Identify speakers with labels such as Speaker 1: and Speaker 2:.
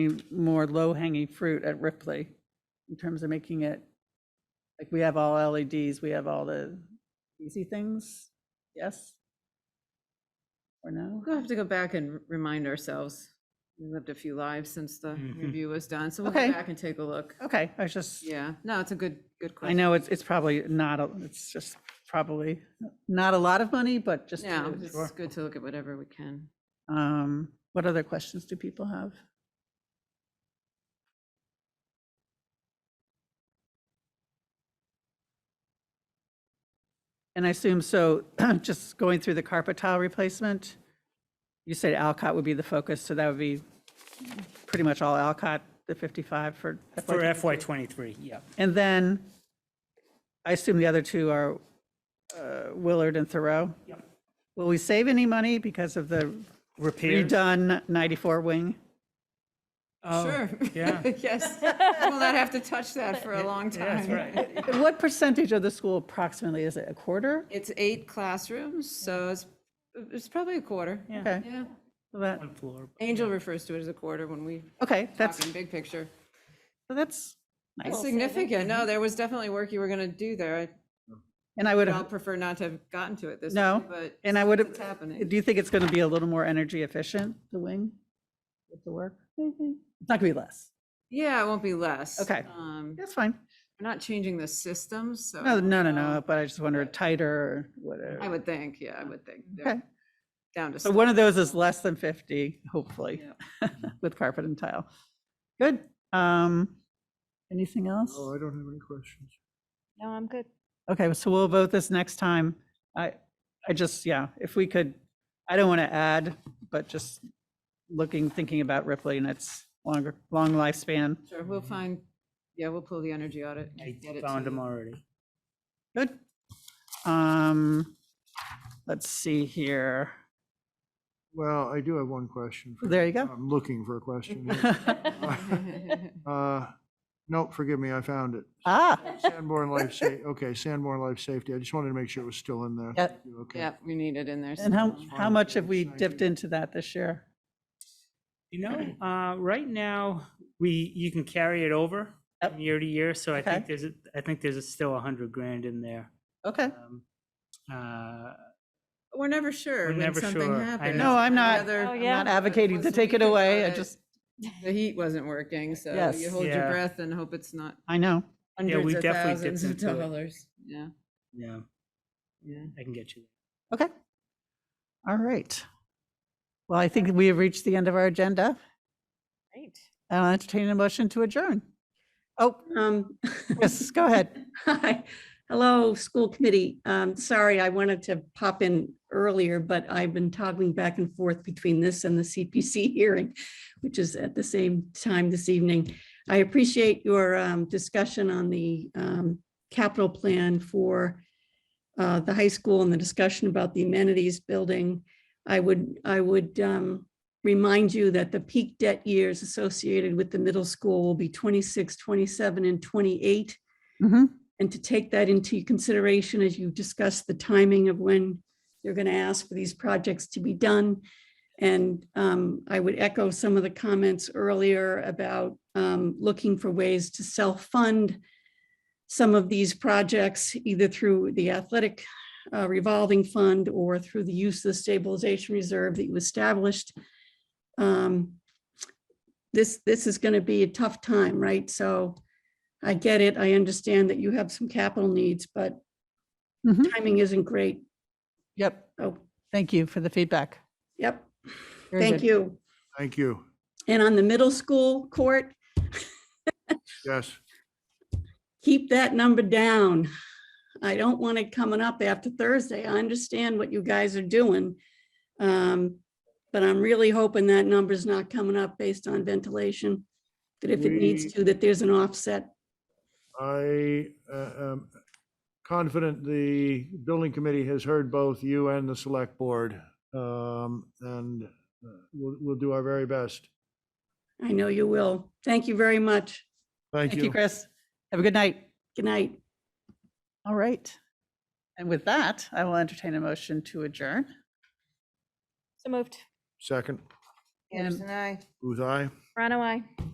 Speaker 1: more low-hanging fruit at Ripley in terms of making it, like, we have all LEDs, we have all the easy things, yes? Or no?
Speaker 2: We'll have to go back and remind ourselves. We lived a few lives since the
Speaker 3: Mhm.
Speaker 2: review was done, so we'll go
Speaker 1: Okay.
Speaker 2: back and take a look.
Speaker 1: Okay, I was just,
Speaker 2: Yeah, no, it's a good, good
Speaker 1: I
Speaker 2: question.
Speaker 1: know it's, it's probably not, a it's just probably not a lot of money, but just. to
Speaker 2: No,
Speaker 1: do it, sure.
Speaker 2: it's good to look at whatever we can.
Speaker 1: Um, What other questions do people have? And I assume, so just going through the carpet tile replacement, you said Alcott would be the focus, so that would be pretty much all Alcott, the 55 for.
Speaker 3: For FY twenty-three, yeah.
Speaker 1: And then I assume the other two are uh, Willard and Thoreau?
Speaker 3: Yep.
Speaker 1: Will we save any money because of the
Speaker 3: Repairs?
Speaker 1: redone 94 wing?
Speaker 3: Oh, Yeah,
Speaker 2: Yes, we'll not have to touch that for a long
Speaker 3: yeah, that's
Speaker 2: time.
Speaker 3: right.
Speaker 1: What percentage of the school approximately is it? A quarter?
Speaker 2: It's eight classrooms, so it's, it's probably a quarter.
Speaker 1: Okay.
Speaker 2: Yeah.
Speaker 1: so that-
Speaker 3: One floor.
Speaker 2: Angel refers to it as a quarter when we
Speaker 1: Okay,
Speaker 2: talk
Speaker 1: that's,
Speaker 2: in big picture.
Speaker 1: so that's
Speaker 2: It's
Speaker 1: nice.
Speaker 2: significant. No, there was definitely work you were gonna do there. I
Speaker 1: And I would,
Speaker 2: I'd prefer not to have gotten to it this
Speaker 1: uh, No,
Speaker 2: way, but.
Speaker 1: and I would
Speaker 2: It's
Speaker 1: have,
Speaker 2: happening.
Speaker 1: do you think it's going to be a little more energy efficient, the wing? With the work? It's not going to be less.
Speaker 2: Yeah, it won't be less.
Speaker 1: Okay.
Speaker 2: Um,
Speaker 1: That's fine.
Speaker 2: We're not changing the systems, so. I
Speaker 1: No,
Speaker 2: don't
Speaker 1: no, no,
Speaker 2: know.
Speaker 1: no, but I just wonder
Speaker 2: but-
Speaker 1: tighter or whatever.
Speaker 2: I would think, yeah, I would think. they're
Speaker 1: Okay.
Speaker 2: Down to.
Speaker 1: So one
Speaker 2: six.
Speaker 1: of those is less than 50, hopefully,
Speaker 2: Yep.
Speaker 1: with carpet and tile. Good. Um, Anything else?
Speaker 4: No, I don't have any questions.
Speaker 5: No, I'm good.
Speaker 1: Okay, so we'll vote this next time. I, I just, yeah, if we could, I don't want to add, but just looking, thinking about Ripley and its longer, long lifespan.
Speaker 2: Sure, we'll find, yeah, we'll pull the energy audit. and
Speaker 3: I
Speaker 2: get it to
Speaker 3: found them
Speaker 2: you.
Speaker 3: already.
Speaker 1: Good. Um, Let's see here.
Speaker 4: Well, I do have one question. for-
Speaker 1: There you go.
Speaker 4: I'm looking for a question. here. Uh, Nope, forgive me, I found it.
Speaker 1: Ah,
Speaker 4: Sanborn Life Sa, okay, Sanborn Life Safety. I just wanted to make sure it was still in there.
Speaker 1: Yeah.
Speaker 4: Thank you, Okay.
Speaker 2: Yeah, we need it in there.
Speaker 1: and how,
Speaker 2: somehow.
Speaker 1: how much have we dipped into that this year?
Speaker 3: You know, uh, right now, we, you can carry it over
Speaker 1: Yep.
Speaker 3: from year to year, so I
Speaker 1: Okay.
Speaker 3: think there's, a- I think there's a- still a hundred grand in there.
Speaker 1: Okay.
Speaker 3: Um, uh,
Speaker 2: We're never sure
Speaker 3: We're
Speaker 2: when
Speaker 3: never
Speaker 2: something
Speaker 3: sure. I
Speaker 2: happens.
Speaker 3: know.
Speaker 1: No, I'm not-
Speaker 2: Whether-
Speaker 5: Oh,
Speaker 1: I'm
Speaker 5: yeah.
Speaker 1: not advocating to
Speaker 2: Was the
Speaker 1: take it
Speaker 2: weekend
Speaker 1: away. I
Speaker 2: audit-
Speaker 1: just,
Speaker 2: The heat wasn't working, so you
Speaker 1: Yes.
Speaker 2: hold your
Speaker 3: Yeah.
Speaker 2: breath and hope it's not
Speaker 1: I know.
Speaker 2: hundreds
Speaker 3: we
Speaker 2: of
Speaker 3: definitely dipped
Speaker 2: thousands of
Speaker 3: into it.
Speaker 2: dollars. Yeah,
Speaker 3: Yeah,
Speaker 2: yeah.
Speaker 3: I can get you.
Speaker 1: Okay. All right. Well, I think we have reached the end of our agenda.
Speaker 5: Great.
Speaker 1: I'll entertain a motion to adjourn. Oh,
Speaker 6: Um,
Speaker 1: yes, go ahead.
Speaker 6: hi, hello, school committee. Um, sorry, I wanted to pop in earlier, but I've been toggling back and forth between this and the CPC hearing, which is at the same time this evening. I appreciate your um discussion on the um capital plan for uh the high school and the discussion about the amenities building. I would, I would um remind you that the peak debt years associated with the middle school will be 26, 27, and twenty-eight.
Speaker 1: Mhm.
Speaker 6: And to take that into consideration as you discuss the timing of when you're going to ask for these projects to be done. And um, I would echo some of the comments earlier about um, looking for ways to self-fund some of these projects, either through the athletic uh, revolving fund or through the use of the stabilization reserve that you established. Um, This, this is going to be a tough time, right? So I get it. I understand that you have some capital needs, but
Speaker 1: Mhm.
Speaker 6: timing isn't great.
Speaker 1: Yep.
Speaker 6: Oh,
Speaker 1: Thank you for the feedback.
Speaker 6: yep.
Speaker 1: Very
Speaker 6: Thank
Speaker 1: good.
Speaker 6: you.
Speaker 4: Thank you.
Speaker 6: And on the middle school court,
Speaker 4: Yes,
Speaker 6: keep that number down. I don't want it coming up after Thursday. I understand what you guys are doing. Um, But I'm really hoping that number's not coming up based on ventilation. That if it needs
Speaker 4: We-
Speaker 6: to, that there's an offset.
Speaker 4: I uh, am confident the building committee has heard both you and the select board. um, And uh, we'll, we'll do our very best.
Speaker 6: I know you will. Thank you very much.
Speaker 4: Thank
Speaker 1: Thank you,
Speaker 4: you.
Speaker 1: Chris. Have a good night.
Speaker 6: Good night.
Speaker 1: All right. And with that, I will entertain a motion to adjourn.
Speaker 5: So moved.
Speaker 4: Second.
Speaker 7: And-
Speaker 8: Anderson, aye.
Speaker 2: Booth, aye?
Speaker 4: Toronto, I.